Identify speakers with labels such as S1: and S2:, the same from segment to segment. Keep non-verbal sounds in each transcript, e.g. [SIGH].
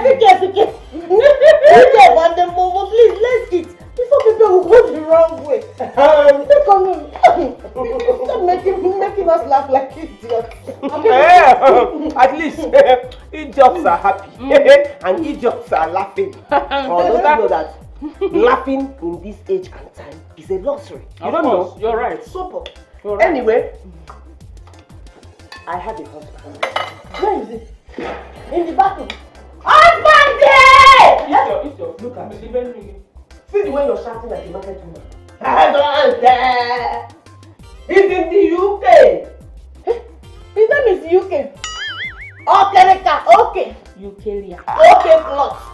S1: Efike, Efike, you don't want the momo, please, let's eat. Before people will go the wrong way. [LAUGHS]
S2: Um, [LAUGHS]
S1: Look on him. [LAUGHS] Stop making, making us laugh like [LAUGHS]
S2: [LAUGHS]
S1: idiots.
S2: eh, at least [LAUGHS] eh, idiots are happy [LAUGHS] and idiots are laughing. Although you know that laughing in this age and time is a luxury. You
S3: Of
S2: don't
S3: course,
S2: know.
S3: You're right.
S2: Super.
S3: You're right.
S2: Anyway, I had a husband.
S1: Where is it? In the bathroom. Husband there!
S2: Idiot, idiot, look at me. eh! See the way you're shouting like a market woman. eh!
S1: Husband there!
S2: He's in the UK.
S1: Eh? His name is UK. Okay, Reka, okay.
S3: Eukarya.
S1: Okay, plot.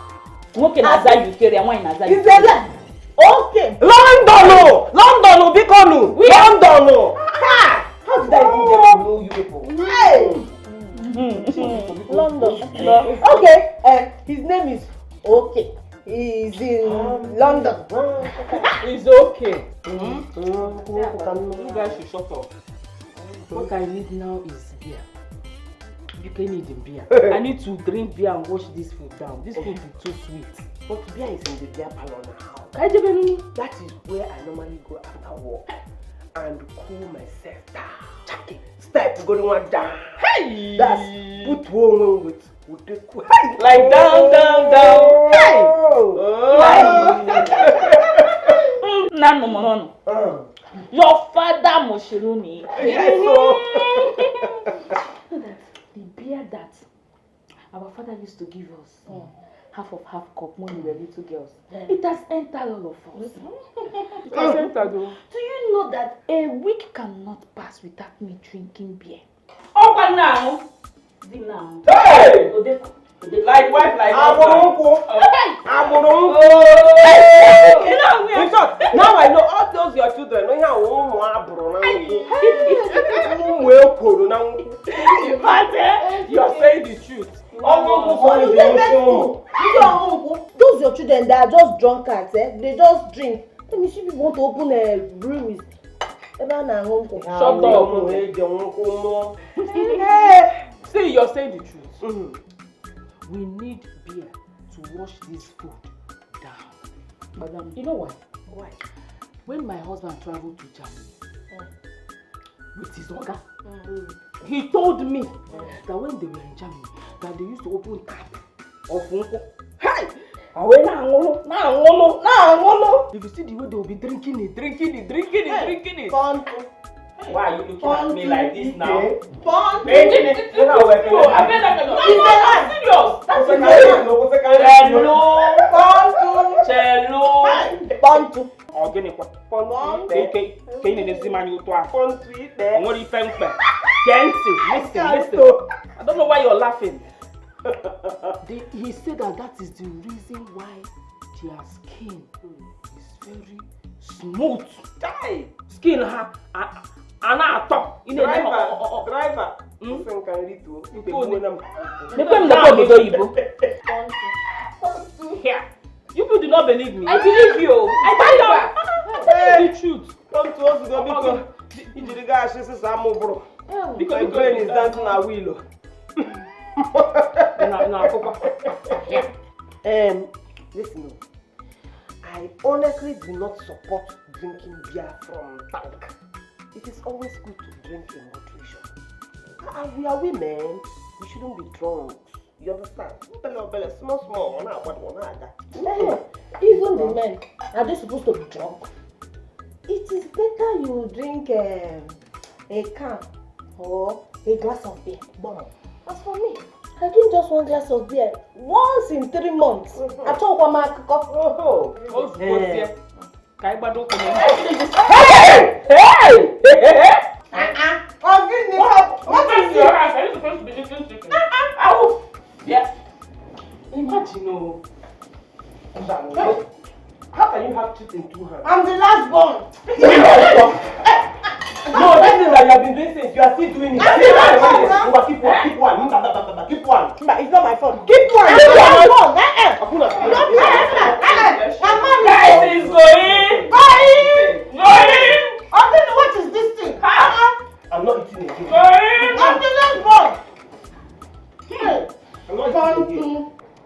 S3: Nwoke
S1: Ah.
S3: na-aza Eukarya, nwaanyị na-aza
S1: Is a lie. Okay.
S2: London o! London o bíkọ́nù! London oh! o!
S1: Ha!
S2: How did I even
S1: Oh.
S2: get to know you people?
S1: Hey! Hmm. London. [LAUGHS] Okay. Uh, his name is Okay. He's in London.
S2: It's okay.
S3: You guys should shut up. What I need now is beer. You can need beer.
S2: [LAUGHS]
S3: I need to drink beer and wash this food down. This food is too sweet.
S2: But beer is in the beer parlor now.
S3: Ka anyị jebe nri.
S2: That is where I normally go after work and cool myself down. Chaki, step going one down.
S3: Hey!
S2: That's put one with with the cool.
S3: Like down, down, down. Oh.
S2: Hey!
S3: Nna nnụnụ n'ọnụ.
S2: Oh.
S3: Your father Moshiruni.
S2: Yes, oh.
S3: The beer that our father used to give us, half of half cup when we were little girls, it has entered all of us. it has entered. oh. [LAUGHS] Do you know that a week cannot pass without me drinking beer? Ọkwa nna ahụ. Di nna ahụ.
S2: Hey!
S3: Odeko.
S2: like wife like agboro nkwu agboro nkwu
S3: You know, we are-
S2: in short now i know all those your children no ihe awụ ụmụ abụrụ na nkwu ụmụ ekworo na nkwu you are saying the truth ọnwụ nkwu
S1: Oh,
S2: fọrọ
S1: you
S2: dị
S1: dey vex
S2: ofe ụmụ
S1: me. You don uncle. Those your children they are just drunkards, eh? They just drink. Let me see if you want to open a brewery. Eba na uncle.
S3: Shut
S1: Ah,
S3: up.
S2: ụmụ
S1: eh?
S2: eje nkwu
S3: [LAUGHS]
S2: mụọ
S3: See, you're saying the truth.
S2: Mhm.
S3: we need beer to wash this food down. Madam, you know why?
S1: Why?
S3: When my husband traveled to Germany with his oga,
S1: Mm.
S3: he told me that when they were in Germany, that they used to open tap of Nko. Hey! Awe na angolo, na angolo, na angolo. If you see the way they will be drinking it, drinking it, drinking it, drinking it.
S1: Fun.
S2: why are you looking at me like this now
S1: eh? Fun.
S3: No, I bet I cannot.
S1: It's a lie.
S3: serious. That's
S2: Ose
S3: a
S2: ka
S3: lie.
S2: anyị nọ, ose ka anyị nọ.
S3: Hello, Chelo.
S1: Bantu.
S3: Ọgịnịkwa.
S2: Fọntụ
S3: Ka
S2: ite.
S3: ike ka ị na-emezi m anya ụtọ ahụ.
S2: Fọntụ ite.
S3: O nwere ife mkpe. Gee ntị, listen, listen. I don't know why you're laughing. They, he said that that is the reason why their skin is very smooth.
S2: Chai.
S3: Skin ha a- a na-atọ. Ị na-eme
S2: [LAUGHS] Driver,
S3: ọ- ọ- ọ- ọ.
S2: driver.
S3: Mm.
S2: Ose nka nri tuo, ikpe
S3: Tuo
S2: gbuo
S3: ni.
S2: na m.
S3: Mepee m na obodo oyibo. Here. You people do not believe me. I believe you. I believe you. The truth.
S2: Come to us, go biko. Ijiri gaasị sịsa amụ bụrụ.
S3: Biko,
S2: My
S3: biko.
S2: brain is dancing na wheel.
S3: Na- na akụkọ. Here.
S2: Um, listen, o.
S1: oh.
S2: I honestly do not support drinking beer from tank. It is always good to drink in moderation. As we are women, we shouldn't be drunk. You understand? Obele obele, small small, ọ na-agbado, ọ na-aga.
S1: Eh, Even the men, are they supposed to be drunk? It is better you drink um, a can or a glass of beer.
S2: Gbọmọ.
S1: As for me, I drink just one glass of beer once in three months. Achọkwa m akụkọ.
S2: Oho.
S3: Ozugbozie,
S2: Eh.
S3: ka anyị gbado ụkwụ n'ụzọ.
S1: Ọ gịnị?
S2: Oh,
S3: What is your house? Are you supposed to be eating chicken?
S2: Ah, oh.
S3: Ahụ! Bịa. Imagine oh. o.
S2: How can you have teeth in two hands?
S1: I'm the last born.
S2: No, that thing that you have been doing since, you are still doing it.
S1: I did not do that.
S2: Keep one, keep one, keep one, keep one.
S1: Mba, it's not my fault. Keep
S2: Keep
S1: Eh, Uh-huh. Hmm.